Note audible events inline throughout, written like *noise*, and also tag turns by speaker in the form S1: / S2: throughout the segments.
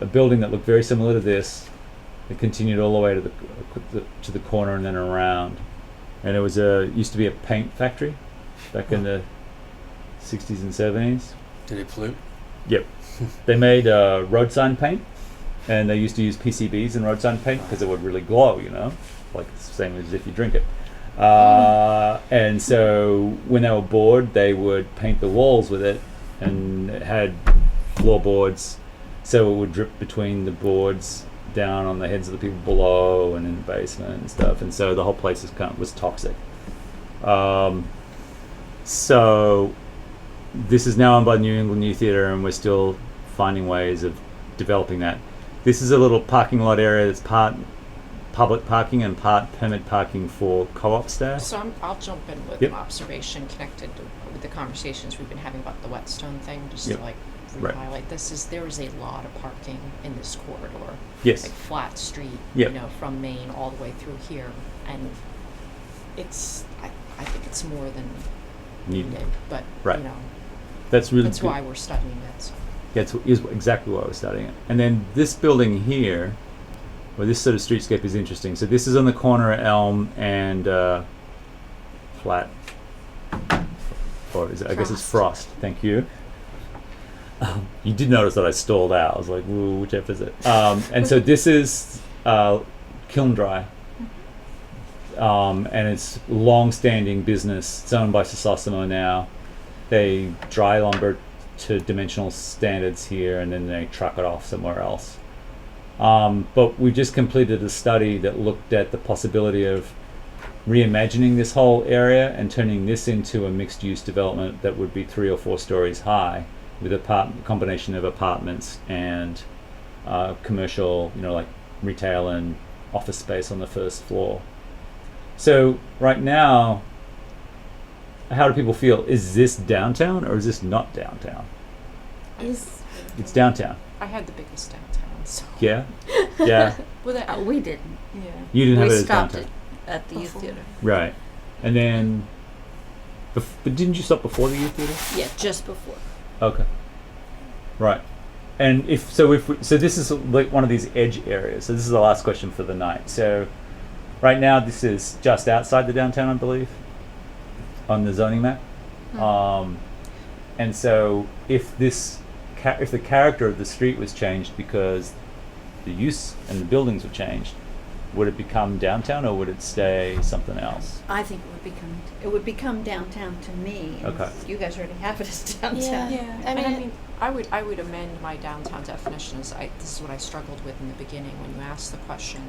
S1: a building that looked very similar to this. It continued all the way to the, the to the corner and then around, and it was a used to be a paint factory back in the 60s and 70s.
S2: Did it pollute?
S1: They made uh, road sign paint, and they used to use PCBs in road sign paint because it would really glow, you know, like the same as if you drink it. Uh, and so when they were bored, they would paint the walls with it, and it had floorboards, so it would drip between the boards down on the heads of the people below and in the basement and stuff. And so the whole place was kind of, was toxic. Um, so this is now owned by the New England New Theatre, and we're still finding ways of developing that. This is a little parking lot area that's part public parking and part permit parking for co-op staff.
S3: So I'm, I'll jump in with
S1: Yep.
S3: an observation connected to- with the conversations we've been having about the whetstone thing, just
S1: Yep.
S3: to like
S1: Right.
S3: re-highlight this, is there is a lot of parking in this corridor.
S1: Yes,
S3: Like flat street,
S1: Yep.
S3: you know, from Maine all the way through here, and it's, I, I think it's more than
S1: you-
S3: needed, but,
S1: Right.
S3: you know,
S1: that's really
S3: that's
S1: good.
S3: why we're studying it, so.
S1: That's wh- is exactly why we're studying it. And then this building here, well, this sort of streetscape is interesting. So this is on the corner of Elm and uh, Flat, or is it, I guess it's Frost. Thank you. Um, you did notice that I stalled out. I was like, "Ooh, which F is it?" Um, and so this is uh, Kiln Dry, um, and it's long-standing business. It's owned by Sassomo now. They dry lumber to dimensional standards here and then they truck it off somewhere else. Um, but we just completed a study that looked at the possibility of reimagining this whole area and turning this into a mixed use development that would be three or four stories high with a part- combination of apartments and uh, commercial, you know, like retail and office space on the first floor. So, right now, how do people feel? Is this downtown or is this not downtown?
S4: Is
S1: It's downtown.
S3: I had the biggest downtown, so,
S1: Yeah. Yeah.
S3: well, that,
S5: Oh,
S4: uh, we didn't.
S3: yeah.
S1: You didn't have
S4: *laughs* we
S1: it as
S4: stopped
S1: downtown.
S4: it at the youth
S3: Before.
S4: theater.
S1: Right. And then. Bef- but didn't you stop before the youth theatre?
S4: Yeah, just before.
S1: Okay. Right. And if so, if we, so, this is like one of these edge areas. So this is the last question for the night. So, right now this is just outside the downtown, I believe, on the zoning map. Um, and so, if this, ca- if the character of the street was changed because the use and the buildings were changed, would it become downtown or would it stay something else?
S4: I think it would become it would become downtown to me. and
S1: Okay.
S4: You guys already have it as downtown.
S3: Yeah, I mean, I mean, I would, I would amend my downtown definitions, I, this is what I struggled with in the beginning, when you asked the question,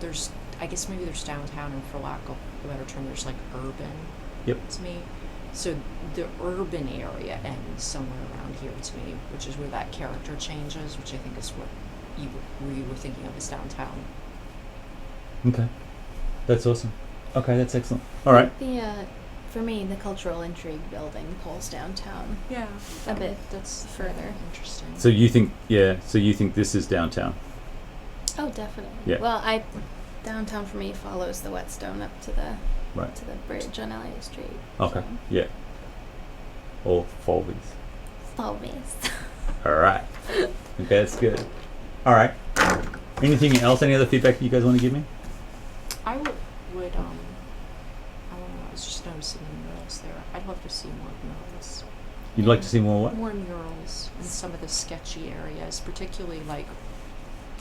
S3: there's, I guess maybe there's downtown, and for lack of a better term, there's like urban.
S1: Yep.
S3: To me, so the urban area ends somewhere around here to me, which is where that character changes, which I think is what you, were- you were thinking of as downtown.
S1: Okay, that's awesome. Okay, that's excellent. All right.
S5: The uh, for me, the cultural intrigue building pulls downtown
S3: Yeah.
S5: a bit
S3: That's
S5: further.
S3: interesting.
S1: So you think, yeah? So you think this is downtown?
S5: Oh, definitely.
S1: Yeah.
S5: Well, I downtown for me follows the whetstone up to the
S1: Right.
S5: to the bridge on Elliott Street.
S1: Okay. Yeah. Or Folbies.
S5: So, always.
S1: All right. Okay, that's good. All right. Anything else? Any other feedback you guys want to give me?
S3: I would, would um, I don't know. I was just noticing the murals there. I'd love to see more murals,
S1: You'd like to see more what?
S3: more murals in some of the sketchy areas, particularly like,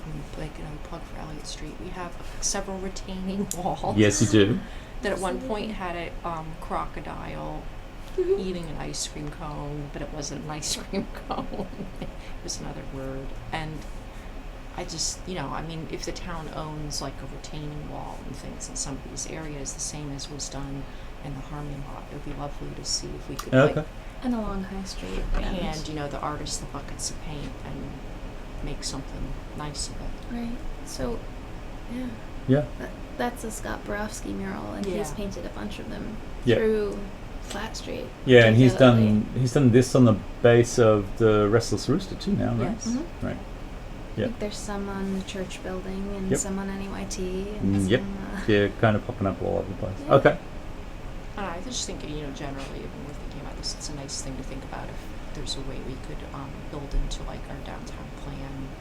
S3: um, like another plug for Elliott Street. We have several retaining *laughs* walls
S1: Yes, you do.
S3: that at one point had a um, crocodile eating an ice cream cone, but it wasn't an ice *laughs* cream cone. it was another word. And I just, you know, I mean, if the town owns like a retaining wall and things in some of these areas, the same as was done in the Harmony lot, it would be lovely to see if we could
S1: Okay.
S3: like
S5: and along High Street. and-
S3: hand, you know, the artists the buckets of paint and make something nice of it.
S5: Right. So, yeah.
S1: Yeah.
S5: That, that's a Scott Borofsky mural, and he's
S3: Yeah.
S5: painted a bunch of them
S1: Yeah.
S5: through Flat Street.
S1: Yeah, and he's
S5: particularly.
S1: done he's done this on the base of the Restless Rooster too now, right?
S3: Yes.
S5: Mhm.
S1: Right.
S5: I
S1: Yeah.
S5: think there's some on the church building, and
S1: Yep.
S5: some on NYT,
S1: Mm,
S5: and
S1: yep.
S5: some. Uh,
S1: Yeah, kind of popping up all over the place.
S5: Yeah.
S1: Okay.
S3: And I was just thinking, you know, generally, when we're thinking about this, it's a nice thing to think about if there's a way we could um, build into like our downtown plan